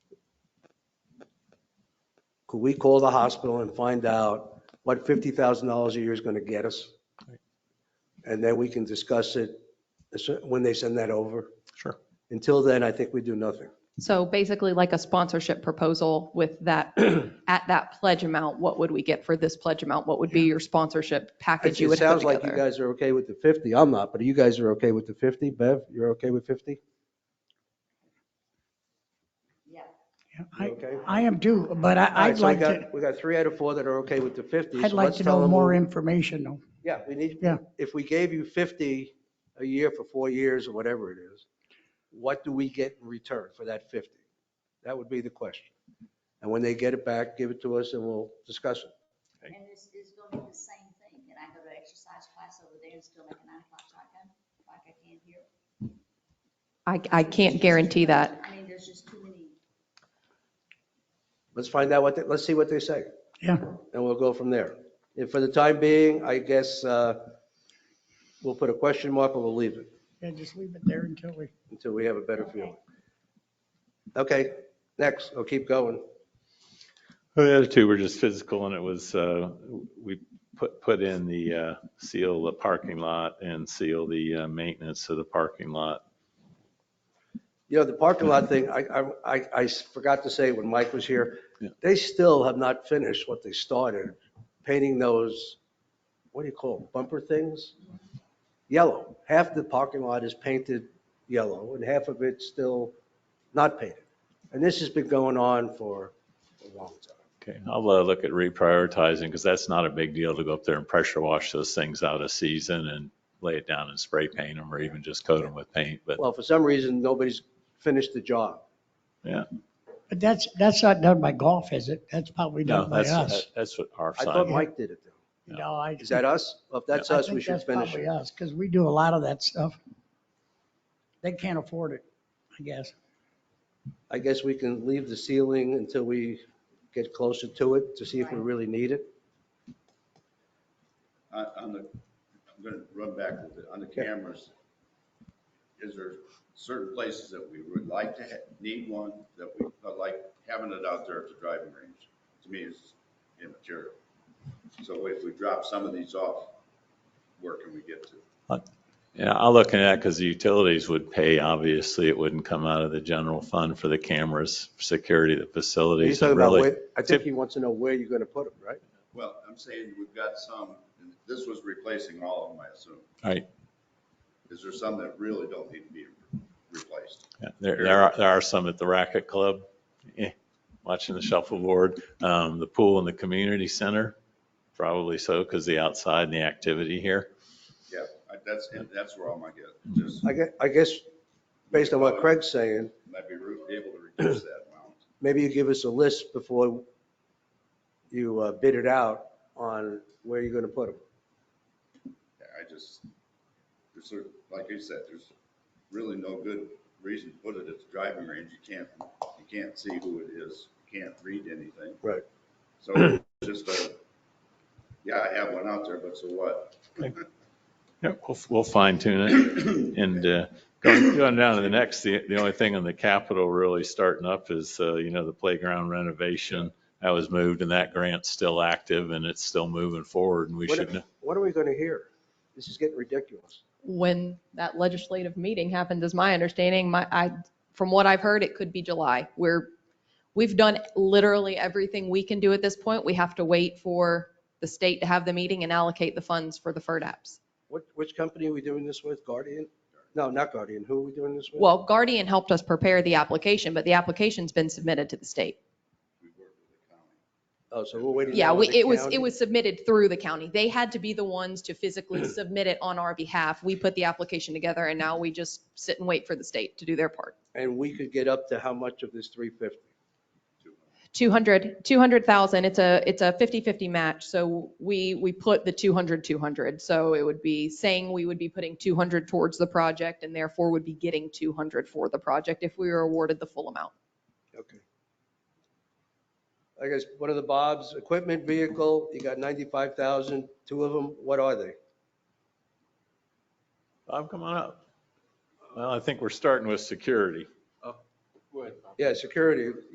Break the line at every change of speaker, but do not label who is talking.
Could we call the hospital and find out what $50,000 a year is going to get us? And then we can discuss it when they send that over.
Sure.
Until then, I think we do nothing.
So basically like a sponsorship proposal with that, at that pledge amount, what would we get for this pledge amount? What would be your sponsorship package you
It
would put
sounds like you
together?
guys are okay with the 50. I'm not, but you guys are okay with the 50? Bev, you're okay with 50?
Yeah,
You
I,
okay?
I am too, but I,
Alright,
I'd
so we
like
got-
to,
We got three out of four that are okay with the 50.
I'd
so
like
let's
to
tell
know
them
more
who-
information though.
Yeah, we need,
Yeah.
if we gave you 50 a year for four years or whatever it is, what do we get in return for that 50? That would be the question. And when they get it back, give it to us and we'll discuss it.
And this is gonna be the same thing, and I go to exercise class over there and still make a nine o'clock shotgun, like I can here.
I, I can't guarantee that.
I mean, there's just too many.
Let's find out what, they- let's see what they say
Yeah,
and we'll go from there. And for the time being, I guess uh, we'll put a question mark and we'll leave it
yeah, just leave it there until we,
until we have a better feeling. Okay, next, I'll keep going.
Well, Oh, The other two were just physical and it was, uh, we put, put in the, uh, seal the parking lot and seal the uh, maintenance of the parking lot.
You know, the parking lot thing, I, I- I, I forgot to say when Mike was here,
Yeah.
they still have not finished what they started, painting those, what do you call them, bumper things? Yellow. Half the parking lot is painted yellow and half of it's still not painted. And this has been going on for a long time.
Okay, I'll uh, look at reprioritizing because that's not a big deal to go up there and pressure wash those things out of season and lay it down and spray paint them or even just coat them with paint, but
Well, for some reason, nobody's finished the job.
but that's, that's not done by golf, is it? That's probably
no,
done by
that's,
us.
that's what our
I thought
sign.
Mike did it though.
No, I.
Is that us? Well, If that's
I
us,
think
we should
that's
finish
probably
it.
us, because we do a lot of that stuff. They can't afford it, I guess.
I guess we can leave the ceiling until we get closer to it to see if we really need it.
On on the, I'm gonna run back a little bit, on the cameras, is there certain places that we would like to ha- need one, that we, but like having it out there at the driving range, to me is immaterial. So if we drop some of these off, where can we get to?
Yeah, I'll look at that because the utilities would pay, obviously, it wouldn't come out of the general fund for the cameras, security, of the
He's
facilities.
talking
and
about
really-
where, I think he wants to know where you're gonna put them, right?
Well, I'm saying we've got some, and this was replacing all of them, I assume.
Right.
Is there some that really don't need to be replaced?
Yeah, There, there are, there are some at the racket club, eh, watching the shuffleboard, um, the pool and the community center, probably so, because the outside and the activity here.
Yeah, I- that's, and that's where all my guess, just,
I guess, I guess, based on what Craig's saying,
might be re- able to reduce that amount.
maybe you give us a list before you uh, bid it out on where you're gonna put them.
Yeah, I just, there's sort of, like you said, there's really no good reason to put it at the driving range. You can't, you can't see who it is. You can't read anything.
Right.
So it's just a, yeah, I have one out there, but so what?
Yeah, we'll, we'll fine tune it. And uh, going going down to the next, the, the only thing on the capital really starting up is, uh, you know, the playground renovation. That was moved and that grant's still active and it's still moving forward and we
What-
should, know-
What are we gonna hear? This is getting ridiculous.
When that legislative meeting happens, is my understanding, my, I, from what I've heard, it could be July. We're, we've done literally everything we can do at this point. We have to wait for the state to have the meeting and allocate the funds for the FERDAPs.
What, which company are we doing this with? Guardian? No, not Guardian. Who are we doing this with?
Well, Guardian helped us prepare the application, but the application's been submitted to the state.
We work with the county.
Oh, so we're waiting.
Yeah,
now
we,
with the
it was,
county?
it was submitted through the county. They had to be the ones to physically submit it on our behalf. We put the application together and now we just sit and wait for the state to do their part.
And we could get up to how much of this 350?
200, 200,000, it's a, it's a 50/50 match. So we, we put the 200, 200. So it would be saying we would be putting 200 towards the project and therefore would be getting 200 for the project if we were awarded the full amount.
Okay. I guess one of the Bob's, equipment vehicle, you got 95,000, two of them, what are they?
Bob, come on up. Well, I think we're starting with security.
Yeah, security,